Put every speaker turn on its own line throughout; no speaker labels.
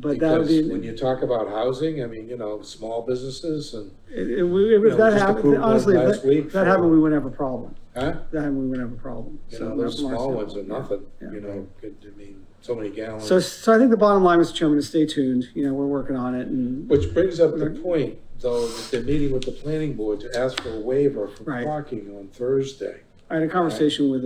But that would
Because
be,
when you talk about housing, I mean, you know, small businesses and,
if- if if that
know, just
happened,
approved one
honestly, if
last
that-
week
if that happened,
for-
we wouldn't have a problem.
huh?
If That happened, we wouldn't have a problem.
You
So
know,
that's
those
from our
small ones are
standpoint.
nothing,
Yeah.
you know, could, I mean, so many gallons.
So, so I think the bottom line, Mr. Chairman, is stay tuned. You know, we're working on it and,
Which brings up
Mm-hmm.
the point, though, that they're meeting with the planning board to ask for a waiver for
Right.
parking on Thursday.
I had a conversation with,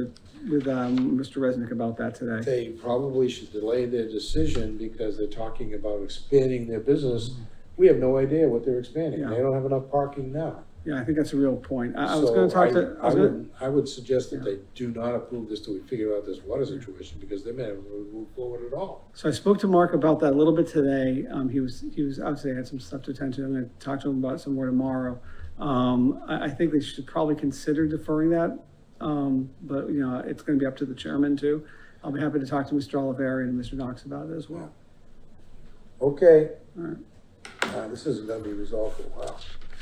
with, um, Mr. Resnick about that today.
They probably should delay their decision because they're talking about expanding their business. We have no idea what they're expanding. They
Mm-hmm. Yeah.
don't have enough parking now.
Yeah, I think that's a real point. I, I was
So
gonna talk to, I
I
was gonna,
would, I would suggest that they do not approve this till we figure out this water situation because they may not move forward at all.
so I spoke to Mark about that a little bit today. Um, he was, he was, obviously had some stuff to attend to. I'm gonna talk to him about it some more tomorrow. Um, I, I think they should probably consider deferring that. Um, but, you know, it's gonna be up to the chairman too. I'll be happy to talk to Mr. Oliveri and Mr. Knox about it as well.
Okay.
Alright.
Uh, this isn't gonna be resolved for a while.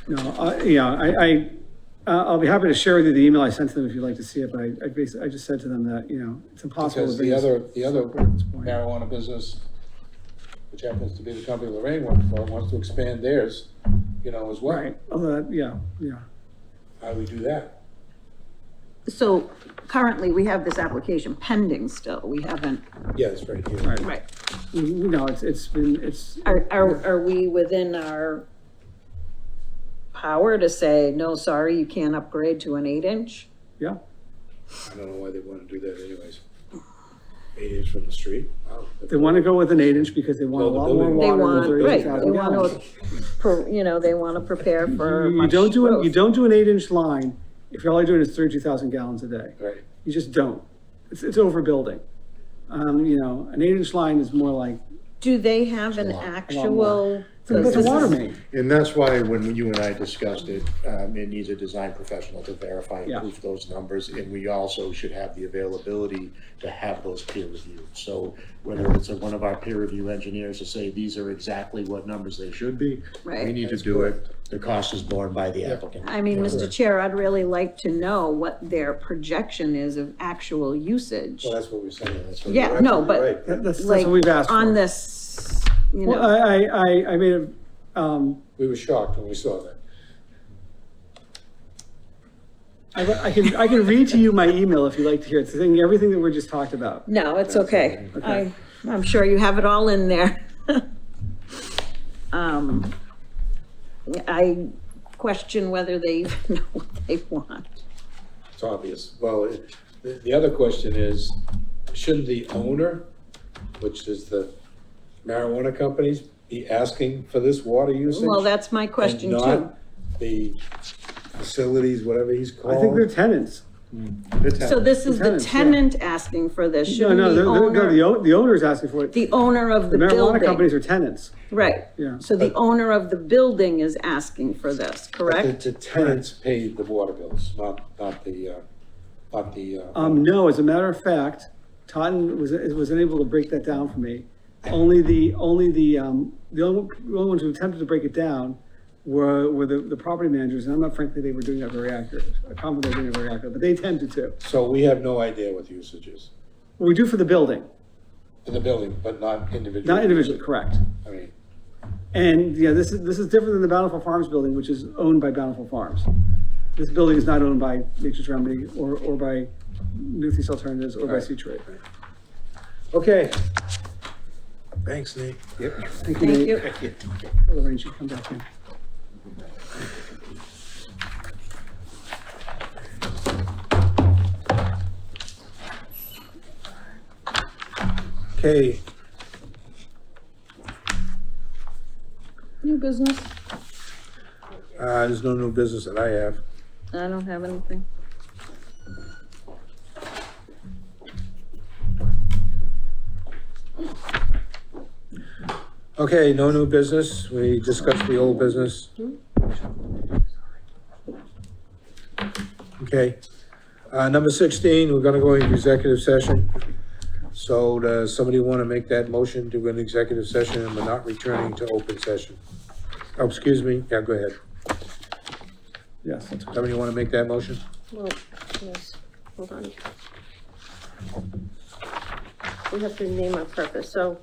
No, I, yeah, I, I, uh, I'll be happy to share with you the email I sent to them if you'd like to see it, but I, I basically, I just said to them that, you know, it's impossible to
Because
bring
the
this
other, the other
up at this point.
marijuana business, which happens to be the company Lorraine works for, wants to expand theirs, you know, as well.
Right, although, that- yeah, yeah,
How do we do that?
So currently, we have this application pending still. We haven't,
Yeah, it's right here.
right.
right.
We- we know it's, it's been, it's,
Are, are, are we within our power to say, no, sorry, you can't upgrade to an eight inch?
yeah,
I don't know why they wanna do that anyways. Eight inches from the street. Wow.
they want to go with an eight inch because they want a
Well, the
lot more
building-
They
water than
want, right,
thirty
they
thousand
want
gallons.
to, pro- you know, they want to prepare for
You you
much
don't do, an- you
growth.
don't do an eight inch line if you're only doing is thirty-two thousand gallons a day.
Right,
You just don't. It's, it's overbuilding. Um, you know, an eight inch line is more like,
Do they have an
lot- a lot
actual?
it's a water main.
And that's why when you and I discussed it, um, it needs a design professional to verify
Yeah.
and proof those numbers. And we also should have the availability to have those peer reviewed. So whether it's a- one of our peer review engineers to say, these are exactly what numbers they should be. We
Right.
need to do it. The cost is borne by the applicant.
I mean, Mr. Chair, I'd really like to know what their projection is of actual usage.
well, that's what we're saying, that's what.
Yeah, no, but-
Right.
That- That's, that's
Like,
what we've asked for.
on this, you
Well,
know,
I, I, I, I made a, um,
We were shocked when we saw that.
I, I can, I can read to you my email if you'd like to hear it. It's the thing, everything that we just talked about.
no, it's okay. I, I'm sure you have it all in there. Um, I question whether they even know what they want.
It's obvious. Well, it- the, the other question is, shouldn't the owner, which is the marijuana companies, be asking for this water usage?
Well, that's my question
and
too.
not The facilities, whatever he's
I think they're
called.
tenants.
So this is the
Tenants, yeah.
tenant asking for this,
No,
shouldn't
no,
the
they're, they're, no, the
owner,
o- the owner's asking for it. The
the owner of the
marijuana companies
building?
are tenants.
Right,
Yeah.
so the owner of the building is asking for this,
But the-
correct?
The tenants pay the water bills, not, not the, uh, not the, uh,
Um, no, as a matter of fact, Totten was, was unable to break that down for me. Only the, only the, um, the only, the only ones who attempted to break it down were, were the, the property managers, and I'm not frankly, they were doing that very accurate. I comment they were doing it very accurate, but they attempted to.
so we have no idea what the usage is
We do for the building,
for the building, but not individual.
not individually, correct.
I mean,
And, yeah, this is, this is different than the Bountiful Farms building, which is owned by Bountiful Farms. This building is not owned by Nature's Remedy or, or by Northeast Alternatives or by
Right.
Sea Trade.
okay. Thanks, Nate. Yep.
Thank you,
Thank
Nate.
you.
Lorraine should come back in.
Okay,
New business?
uh, there's no new business that I have.
I don't have anything.
Okay, no new business. We discussed the old business. Okay. Uh, number sixteen, we're gonna go into executive session. So does somebody wanna make that motion to an executive session and we're not returning to open session? Oh, excuse me. Yeah, go ahead.
Yes, that's correct.
Somebody wanna make that motion?
Well, yes, hold on. We have to name our purpose, so